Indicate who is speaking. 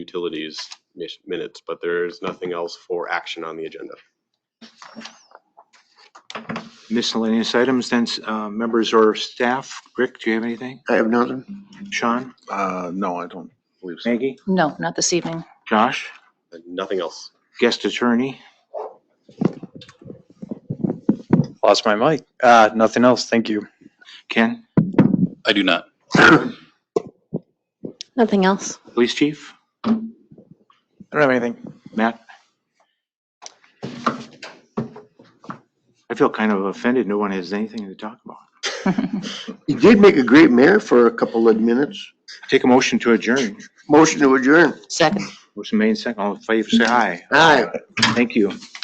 Speaker 1: utilities mis- minutes, but there is nothing else for action on the agenda.
Speaker 2: Miscellaneous items, then, uh, members or staff. Rick, do you have anything?
Speaker 3: I have nothing.
Speaker 2: Sean?
Speaker 3: Uh, no, I don't believe so.
Speaker 2: Maggie?
Speaker 4: No, not this evening.
Speaker 2: Josh?
Speaker 1: And Nothing else.
Speaker 2: Guest attorney?
Speaker 5: Lost my mic. Uh, nothing else. Thank you.
Speaker 2: Ken?
Speaker 6: I do not.
Speaker 4: Nothing else.
Speaker 2: Police chief?
Speaker 5: I don't have anything.
Speaker 2: Matt? I feel kind of offended. No one has anything to talk about.
Speaker 3: You did make a great mayor for a couple of minutes.
Speaker 2: Take a motion to adjourn.
Speaker 3: Motion to adjourn.
Speaker 4: Second.
Speaker 2: Motion made second. All in favor, say aye.
Speaker 3: Aye.
Speaker 2: Thank you.